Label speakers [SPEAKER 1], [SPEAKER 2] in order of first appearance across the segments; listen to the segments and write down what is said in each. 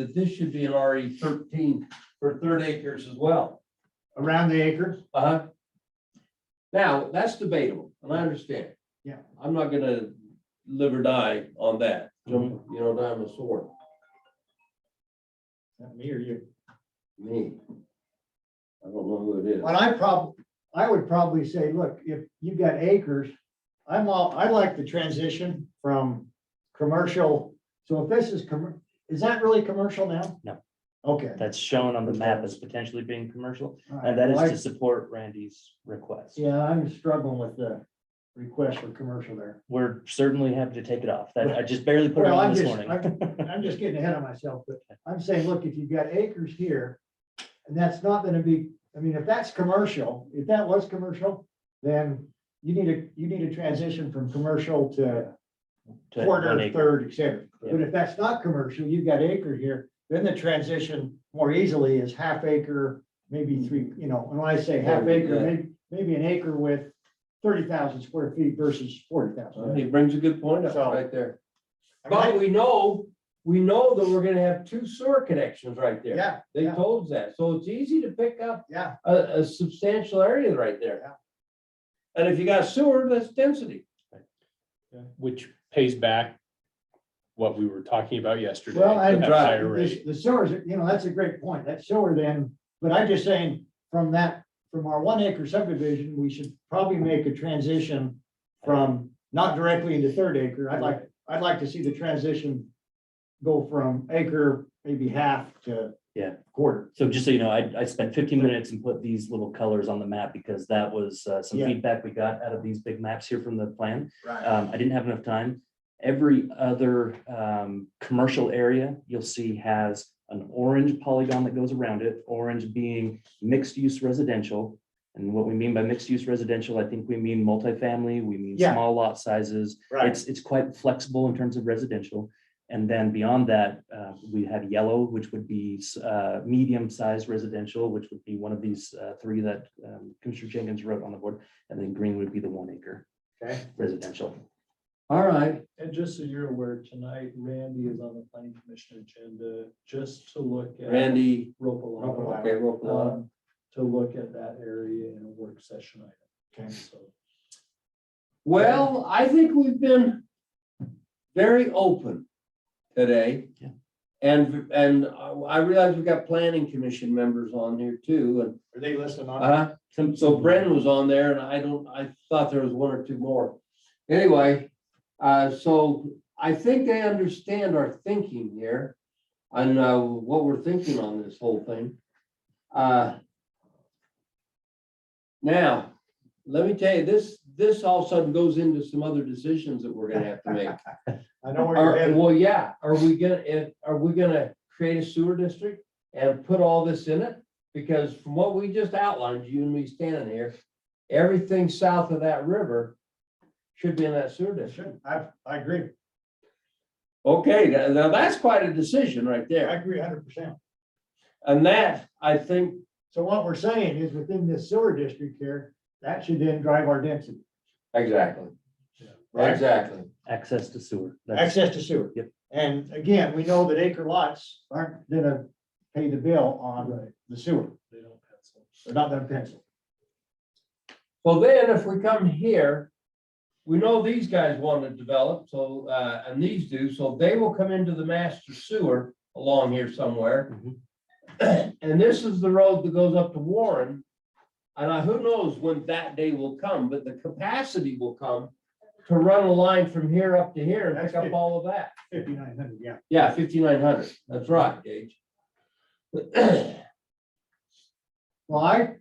[SPEAKER 1] that this should be an RE thirteen for third acres as well.
[SPEAKER 2] around the acres.
[SPEAKER 1] Uh-huh. Now, that's debatable, and I understand.
[SPEAKER 2] Yeah.
[SPEAKER 1] I'm not gonna live or die on that,
[SPEAKER 2] Mm-hmm.
[SPEAKER 1] jump, you know, die on a sword,
[SPEAKER 2] Not me or you.
[SPEAKER 1] me. I don't know who it is.
[SPEAKER 2] But I prob, I would probably say, look, if you've got acres, I'm all, I like the transition from commercial. So if this is, commer- is that really commercial now?
[SPEAKER 3] No.
[SPEAKER 2] Okay.
[SPEAKER 3] that's shown on the map as potentially being commercial,
[SPEAKER 2] all right.
[SPEAKER 3] and that
[SPEAKER 2] Well, I-
[SPEAKER 3] is to support Randy's request.
[SPEAKER 2] Yeah, I'm struggling with the request for commercial there.
[SPEAKER 3] We're certainly happy to take it off. That I just barely put it
[SPEAKER 2] Well,
[SPEAKER 3] on
[SPEAKER 2] I'm
[SPEAKER 3] this
[SPEAKER 2] just-
[SPEAKER 3] morning.
[SPEAKER 2] I'm just getting ahead of myself, but I'm saying, look, if you've got acres here, and that's not gonna be, I mean, if that's commercial, if that was commercial, then you need a, you need a transition from commercial to
[SPEAKER 3] to one
[SPEAKER 2] quarter,
[SPEAKER 3] acre.
[SPEAKER 2] third, et cetera.
[SPEAKER 3] Yeah.
[SPEAKER 2] But if that's not commercial, you've got acre here, then the transition more easily is half acre,
[SPEAKER 3] Mm.
[SPEAKER 2] maybe three, you know, and when I say half
[SPEAKER 1] Yeah.
[SPEAKER 2] acre, maybe, maybe an acre with thirty thousand square feet versus forty
[SPEAKER 1] Uh,
[SPEAKER 2] thousand.
[SPEAKER 1] He brings a good point up
[SPEAKER 2] So-
[SPEAKER 1] right there. But we know, we know that we're gonna have two sewer connections right there.
[SPEAKER 2] Yeah,
[SPEAKER 1] They
[SPEAKER 2] yeah.
[SPEAKER 1] told us that, so it's easy to pick up
[SPEAKER 2] yeah,
[SPEAKER 1] a, a substantial area right
[SPEAKER 2] Yeah.
[SPEAKER 1] there. And if you got sewer, that's density.
[SPEAKER 4] Which pays back what we were talking about yesterday.
[SPEAKER 2] well, I,
[SPEAKER 4] at
[SPEAKER 1] Right.
[SPEAKER 4] higher
[SPEAKER 2] the
[SPEAKER 4] rate.
[SPEAKER 2] the sewers, you know, that's a great point, that sewer then, but I'm just saying, from that, from our one acre subdivision, we should probably make a transition from not directly into third acre, I'd like, I'd like to see the transition go from acre, maybe half to
[SPEAKER 3] Yeah.
[SPEAKER 2] quarter.
[SPEAKER 3] So just so you know, I, I spent fifteen minutes and put these little colors on the map because that was uh, some
[SPEAKER 2] Yeah.
[SPEAKER 3] feedback we got out of these big maps here from the plan.
[SPEAKER 2] Right.
[SPEAKER 3] Um, I didn't have enough time. Every other, um, commercial area you'll see has an orange polygon that goes around it, orange being mixed-use residential. And what we mean by mixed-use residential, I think we mean multifamily, we mean
[SPEAKER 2] Yeah.
[SPEAKER 3] small lot sizes.
[SPEAKER 2] Right,
[SPEAKER 3] It's, it's quite flexible in terms of residential. And then beyond that, uh, we have yellow, which would be, uh, medium-sized residential, which would be one of these, uh, three that, um, Commissioner Jenkins wrote on the board. And then green would be the one acre
[SPEAKER 2] okay,
[SPEAKER 3] residential.
[SPEAKER 1] All right.
[SPEAKER 5] And just so you're aware, tonight Randy is on the planning commission agenda just to look at
[SPEAKER 1] Randy.
[SPEAKER 5] Ropalata.
[SPEAKER 1] Okay, Ropalata.
[SPEAKER 5] um, To look at that area in a work session item.
[SPEAKER 2] Okay.
[SPEAKER 5] So
[SPEAKER 1] Well, I think we've been very open today.
[SPEAKER 3] Yeah.
[SPEAKER 1] And, and I I realize we've got planning commission members on here too, and,
[SPEAKER 2] are they listening on?
[SPEAKER 1] uh,
[SPEAKER 3] Some,
[SPEAKER 1] so Brendan was on there and I don't, I thought there was one or two more. Anyway, uh, so I think they understand our thinking here and, uh, what we're thinking on this whole thing. Uh, Now, let me tell you, this, this all of a sudden goes into some other decisions that we're gonna have to make.
[SPEAKER 2] I know where you're
[SPEAKER 1] Are-
[SPEAKER 2] headed,
[SPEAKER 1] Well, yeah, are we gonna, if, are we gonna create a sewer district and put all this in it? Because from what we just outlined, you and me standing here, everything south of that river should be in that sewer district.
[SPEAKER 2] Sure, I, I agree,
[SPEAKER 1] Okay, now- now that's quite a decision right
[SPEAKER 2] I
[SPEAKER 1] there.
[SPEAKER 2] agree hundred percent.
[SPEAKER 1] And that, I think,
[SPEAKER 2] So what we're saying is within this sewer district here, that should then drive our density.
[SPEAKER 1] exactly.
[SPEAKER 5] Yeah.
[SPEAKER 1] Exactly.
[SPEAKER 3] access to sewer. That's
[SPEAKER 2] Access to sewer.
[SPEAKER 3] Yep.
[SPEAKER 2] And again, we know that acre lots aren't gonna pay the bill on the sewer,
[SPEAKER 5] they don't pencil.
[SPEAKER 2] they're not gonna pencil.
[SPEAKER 1] Well, then if we come here, we know these guys want to develop, so, uh, and these do, so they will come into the master sewer along here somewhere.
[SPEAKER 3] Mhm.
[SPEAKER 1] And this is the road that goes up to Warren. And I, who knows when that day will come, but the capacity will come to run a line from here up to here and pick up all of that.
[SPEAKER 2] Fifty-nine hundred, yeah.
[SPEAKER 1] Yeah, fifty-nine hundred, that's right, Gage.
[SPEAKER 2] Well, I,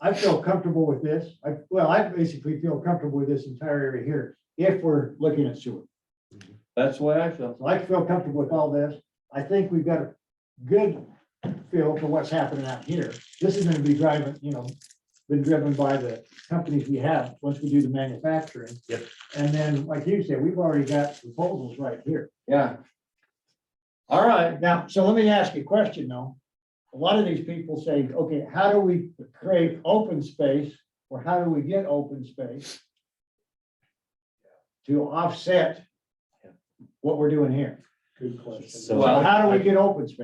[SPEAKER 2] I feel comfortable with this. I, well, I basically feel comfortable with this entire area here if we're looking at sewer.
[SPEAKER 1] That's the way I feel.
[SPEAKER 2] So I feel comfortable with all this. I think we've got a good feel for what's happening out here. This is gonna be driving, you know, been driven by the companies we have, once we do the manufacturing.
[SPEAKER 3] Yep.
[SPEAKER 2] And then, like you said, we've already got proposals right here.
[SPEAKER 1] Yeah. All right,
[SPEAKER 2] Now, so let me ask you a question though. A lot of these people say, okay, how do we create open space or how do we get open space? To offset what we're doing here.
[SPEAKER 5] Good question.
[SPEAKER 3] So-
[SPEAKER 2] So how do we get open space?